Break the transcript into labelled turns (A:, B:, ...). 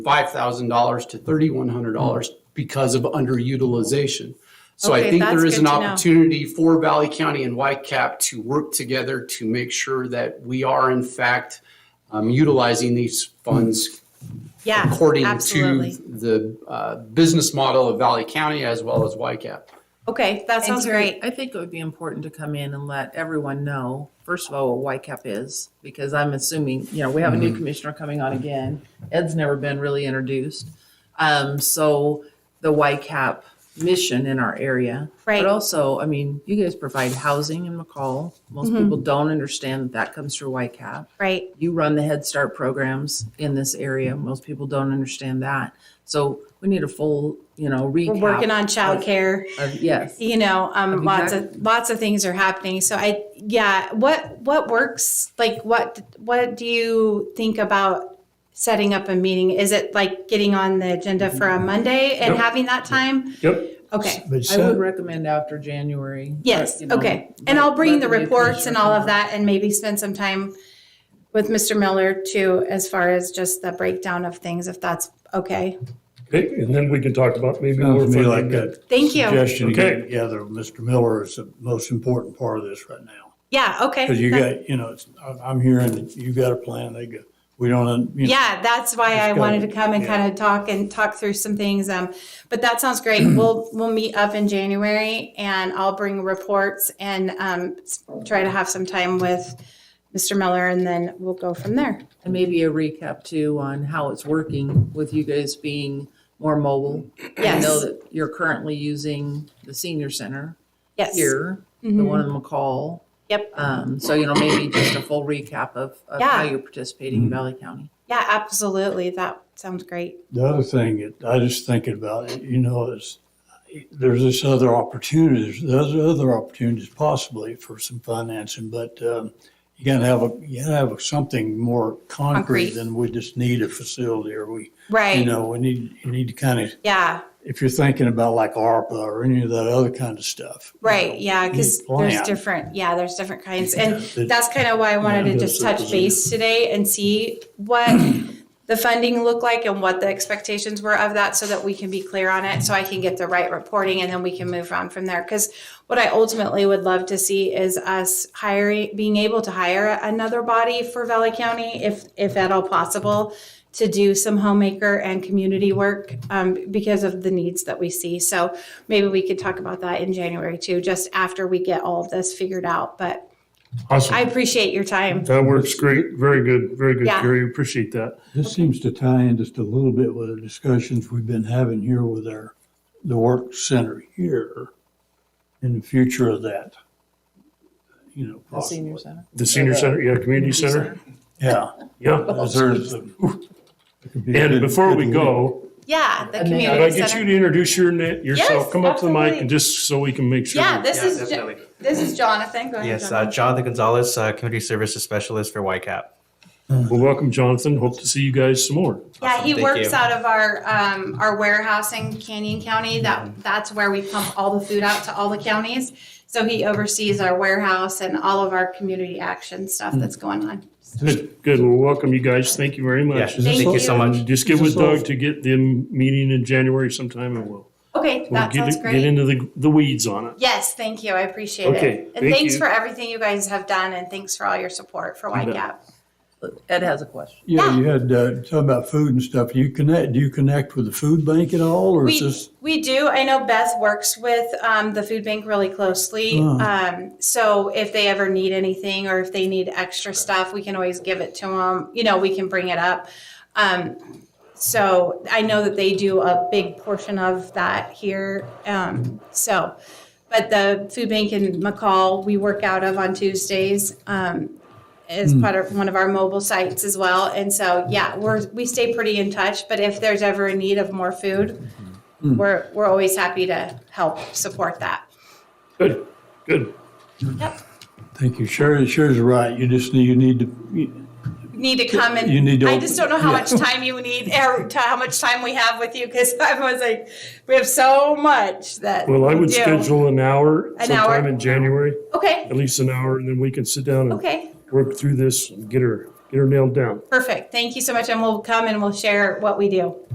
A: $5,000 to $3,100 because of underutilization. So I
B: Okay,
A: think there
B: that's
A: is an
B: good to know.
A: opportunity for Valley County and YCAP to work together to make sure that we are in fact um, utilizing these funds
B: Yeah,
A: according
B: absolutely.
A: to the uh, business model of Valley County as well as YCAP.
B: Okay, that
C: And
B: sounds
C: Terry,
B: great.
C: I think it would be important to come in and let everyone know, first of all, what YCAP is, because I'm assuming, you know, we have a
B: Mm-hmm.
C: new commissioner coming on again. Ed's never been really introduced. Um, so the YCAP mission in our area.
B: Right.
C: But also, I mean, you guys provide housing in McCall. Most
B: Mm-hmm.
C: people don't understand that that comes through YCAP.
B: Right.
C: You run the Head Start programs in this area. Most people don't understand that. So we need a full, you know, recap.
B: We're working on childcare.
C: of- Yes.
B: You know, um, lots
C: Exactly.
B: of lots of things are happening. So I, yeah, what what works? Like, what what do you think about setting up a meeting? Is it like getting on the agenda for
C: Mm-hmm.
B: a Monday and having that time?
D: Yep.
B: Okay.
D: But
C: I would
D: so,
C: recommend after January.
B: Yes.
C: uh, you know,
B: okay. And I'll bring the
C: let new
B: reports and all of
C: commissioner-
B: that, and maybe spend some time with Mr. Miller too, as far as just the breakdown of things, if that's okay.
D: okay, and then we can talk about maybe more.
E: Sounds to me
D: funding.
E: like a
B: Thank you.
E: suggestion you
D: Okay.
E: get together, with Mr. Miller is the most important part of this right now.
B: Yeah. Okay.
E: Because you
B: That-
E: got, you know, it's, I'm- I'm hearing that you got a plan, they go, we don't, you know.
B: Yeah, that's why I
E: go.
B: wanted to come and
E: Yeah.
B: kind of talk and talk through some things. Um, but that sounds great. We'll, we'll meet up in January and I'll bring reports and, um, s- try to have some time with Mr. Miller and then we'll go from there.
C: And maybe a recap too on how it's working with you guys being more mobile. I know
B: Yes,
C: that you're currently using the senior center
B: yes. Mm-hmm.
C: here,
D: Mm-hmm.
C: the one in McCall.
B: Yep.
C: Um, so, you know, maybe just a full recap of, of how
B: Yeah.
C: you're participating in Valley County.
B: Yeah, absolutely. That sounds great.
E: The other thing, that I just thinking about, it, you know, is there's this other opportunities, there's other opportunities possibly for some financing, but, um, you gotta have a, you gotta have something more
B: Concrete.
E: concrete than we just need a facility or we, you
B: Right.
E: know, we need, you need to kind of
B: Yeah,
E: if you're thinking about like ARPA or any of that other kind of stuff.
B: right. Yeah, because
E: Neat
B: there's
E: plan.
B: different, yeah, there's different kinds. And
E: Yeah, it-
B: that's kind of why I wanted
E: Yeah,
B: to
E: it
B: just
E: is.
B: touch base today and see what the funding looked like and what the expectations were of that so that we can be clear on it, so I can get the right reporting and then we can move on from there. Because what I ultimately would love to see is us hiring, being able to hire another body for Valley County if, if at all possible, to do some homemaker and community work um, because of the needs that we see. So maybe we could talk about that in January too, just after we get all of this figured out. But I
D: Awesome.
B: appreciate your time.
D: That works great. Very good. Very good,
B: Yeah.
D: Gary. Appreciate that.
E: This seems to tie in just a little bit with the discussions we've been having here with our, the work center here and the future of that. You know,
C: The senior
E: possibly.
C: center.
D: The senior center, yeah, community center.
E: Yeah.
D: Yeah.
E: because there's a- it could be a
D: And
E: good-
D: before we
E: good
D: go,
B: Yeah, the
C: And they-
D: could
B: community
D: I
B: center.
D: get you to introduce your, na- yourself?
B: Yes,
D: Come up to the mic
B: absolutely.
D: and just so we can make sure.
B: Yeah, this
F: Yeah,
B: is Jo-
F: definitely.
B: this is Jonathan. Go ahead.
F: Yes, uh,
B: Jonathan.
F: Jonathan Gonzalez, uh, Community Services Specialist for YCAP.
D: Well, welcome, Jonathan. Hope to see you guys some more.
B: yeah,
F: awesome,
B: he
F: thank
B: works
F: you.
B: out of our um, our warehouse in Canyon County. That
D: Mm-hmm.
B: that's where we pump all the food out to all the counties. So he oversees our warehouse and all of our community action stuff that's
D: Mm.
B: going on.
D: Good, good. Well, welcome you guys. Thank you very
F: Yeah,
D: much.
F: thank you so much.
D: Just get with
E: Is this all-
D: Doug to get the meeting in January sometime and we'll,
B: Okay,
D: we'll
B: that
D: get,
B: sounds
D: it-
B: great.
D: get into the, the weeds on it.
B: yes, thank you. I appreciate
D: Okay,
B: it. And
D: thank
B: thanks
D: you.
B: for everything you guys have done, and thanks for all your support for
D: You bet.
B: YCAP.
C: Ed has a question.
E: Yeah, you had, uh, talking about food and stuff. Do you connect, do you connect with the food bank at all or is
B: We,
E: this?
B: we do. I know Beth works with um, the food bank really closely.
E: Oh.
B: Um, so if they ever need anything or if they need extra stuff, we can always give it to them. You know, we can bring it up. Um, so I know that they do a big portion of that here. Um, so, but the food bank in McCall, we work out of on Tuesdays. Um, is part of one of our mobile sites as well. And so, yeah, we're, we stay pretty in touch, but if there's ever a need of more food, we're, we're always happy to help support that.
D: Good, good.
E: Thank you. Sherry, Sherry's right. You just, need- you need to,
B: Need to come and,
E: You need to
B: I just don't know how
E: open-
B: much time you need, or to how much time we have with you, because I was like, we have so much that.
D: Well, I
B: we
D: would
B: do.
D: schedule an hour
B: An
D: sometime
B: hour.
D: in January,
B: Okay,
D: at least an hour, and then we can sit down and
B: okay,
D: work through this and get her, Get her nailed down.
B: Perfect. Thank you so much. And we'll come and we'll share what we do.